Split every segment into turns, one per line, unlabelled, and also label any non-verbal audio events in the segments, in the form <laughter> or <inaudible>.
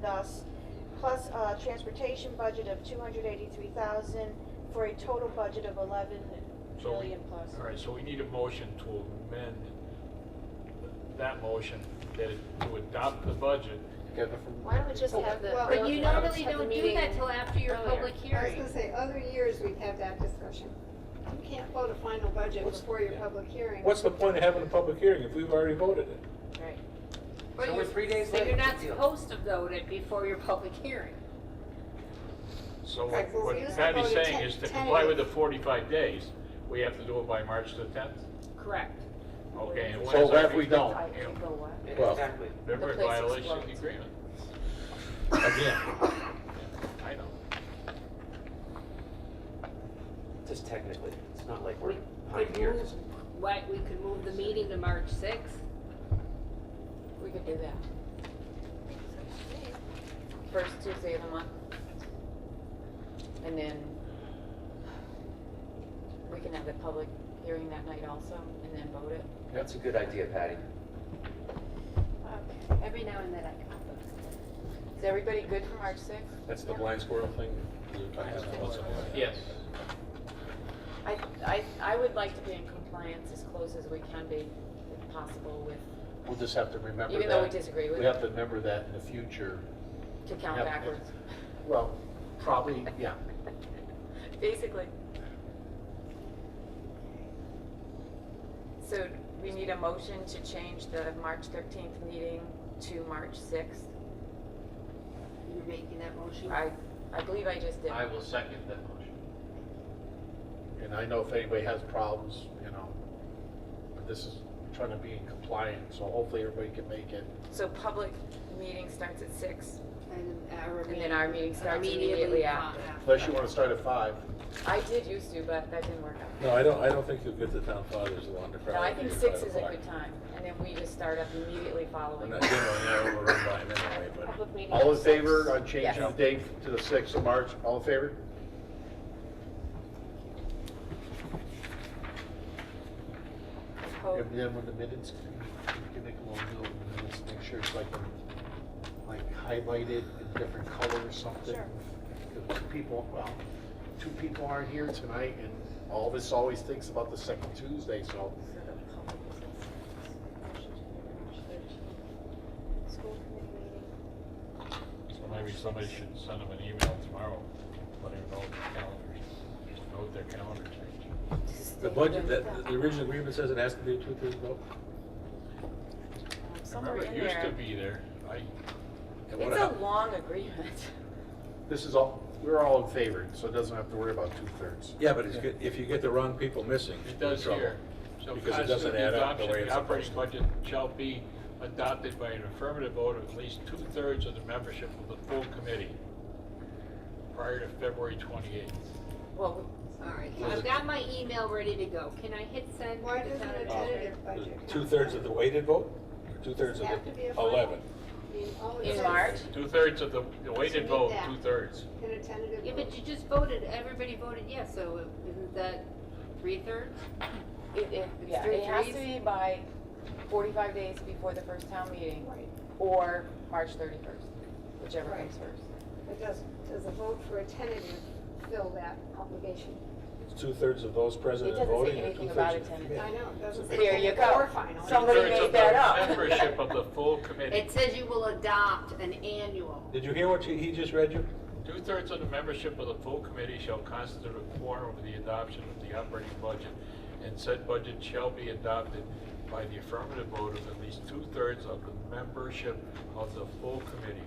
thus, plus a transportation budget of two hundred eighty-three thousand, for a total budget of eleven
So we-
million plus.
All right, so we need a motion to amend that motion, that it- to adopt the budget.
Together from.
Why don't we just have the.
Well,
why don't
But you
we- why don't
normally
we just have the
don't do
meeting Oh,
that till after your
earlier?
public
I was
hearing.
gonna say, oh, other years, we'd have that discussion. You can't vote a final budget
What's-
before your
yeah.
public hearing.
What's the point of having a public hearing if we've already voted it?
Right.
So we're three days
So
late.
you're not supposed to vote it before your public hearing.
So
Right, so
what
we used to
Patty's
vote at
saying
10
is to
10
comply with the 45 days, we have to do it by March the 10th?
Correct.
Okay. and what
So
is
what
our
if we
reason?
don't?
I can go what?
Well-
Exactly.
Then we're in
The place
violation of the
explodes.
agreement.
Again,
I know.
Just technically, it's not like
We
we're
could move,
pioneers.
what, we could move the meeting to March sixth?
We could do that. First Tuesday of the month. And then we can have the public hearing that night also and then vote it.
That's a good idea, Patty.
Every now and then I come. Is everybody good for March sixth?
that's the blind squirrel thing. we were talking about. What's it?
Yes.
I, I, I would like to be in compliance as close as we can be, if possible, with,
We'll just have to remember that.
even though we disagree with
We have to remember that in the future.
to count
Yep.
backwards,
<laughs> Well, probably, yeah.
<laughs> basically. So we need a motion to change the March thirteenth meeting to March sixth.
You're making that motion.
I, I believe I just did.
will second that motion.
And I know if anybody has problems, you know, but this is trying to be in compliance, so hopefully everybody can make it.
So public meeting starts at six,
And then our
and then our meeting starts
Immediately
immediately after.
Unless you want to start at five.
I did used to, but that didn't work out.
No, I don't, I don't think you'll get the town fathers along the crowd.
No, I think
at
six
five
is a
o'clock.
good time, and then we just start up immediately
We're
following.
not generally, yeah, we're run by them anyway, but
Public meeting
All
at
in favor
six.
on changing the
Yes.
date to the sixth of March? All in favor?
Oh,
And then when the minutes, you can make a little note, and minutes, make sure it's like, like highlighted in different color or something.
Sure.
Because when people, well, two people aren't here tonight, and all this always thinks about the second Tuesday, so
School committee meeting,
So maybe somebody should send them an email tomorrow, letting them know the calendar, note their calendar change.
the budget, that, the original agreement says it has to be a two-thirds vote.
um, Somewhere
Remember, it
in
used to
there.
be there. I,
And what
It's a
hap-
long agreement. <laughs>
this is all, we're all in favor, so it doesn't have to worry about two-thirds.
Yeah, but it's good, if you get the wrong people missing.
It does
you're in
here. So
trouble. Because it doesn't
constitute
add up the
adoption,
way
the
it's supposed
operating
to.
budget shall be adopted by an affirmative vote of at least two-thirds of the membership of the full committee prior to February 28th.
Well,
Sorry.
I've got my email ready to go. Can I hit send?
Why
to the
doesn't
town
a
administrator?
tentative budget? come
Two-thirds
from?
of the weighted vote, or two-thirds of
Have to be a
the
final?
eleven?
I mean, all it
In
says-
March?
Two-thirds of the the weighted
need
vote,
that.
two-thirds.
In a tentative.
Yeah, but
vote.
you just voted, everybody voted yes, so isn't that three-thirds?
it, it,
It's
yeah,
three
it has to
threes?
be by forty-five days before the first town meeting,
Right.
or March thirty-first, whichever
Right.
comes first.
But does, does a vote for a tentative fill that obligation?
Two-thirds of those present
It
and
doesn't say
voting, or
anything
two-thirds
about
of the
attendance.
committee?
I know, it doesn't say.
There you
tentative
go.
Or final.
Some- Somebody
Two-thirds
made
of
that
the
up.
Membership of the
<laughs>
full committee.
It says you will adopt an annual.
Did you hear what you- he just read you?
Two-thirds of the membership of the full committee shall constitute a quorum of the adoption of the operating budget, and said budget shall be adopted by the affirmative vote of at least two-thirds of the membership of the full committee.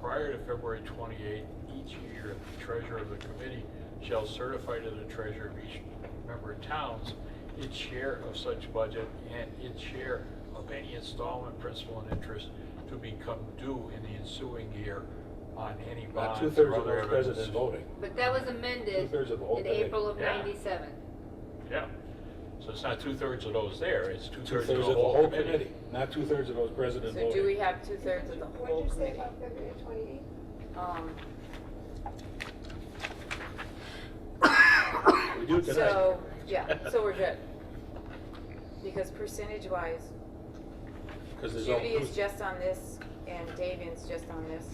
Prior to February 28 each year, the treasurer of the committee shall certify to the treasurer of each member towns its share of such budget and its share of any installment, principal, and interest to become due in the ensuing year on any
About
bonds or
two-thirds of
other
those present
evidences.
and voting.
But that was amended
Two-thirds of the whole
in
committee.
April of
Yeah.
ninety-seven.
Yeah, so it's not two-thirds of those there, it's two-thirds
Two-thirds
of the whole committee.
not two-thirds of those present and
So do we
voting.
have two-thirds of the whole
What'd you say
committee?
about February twenty-eighth?
Um,
We do tonight.
So, yeah, so we're good. Because percentage-wise,
Because there's
Judy
only
is just on this, and Davian's just on this.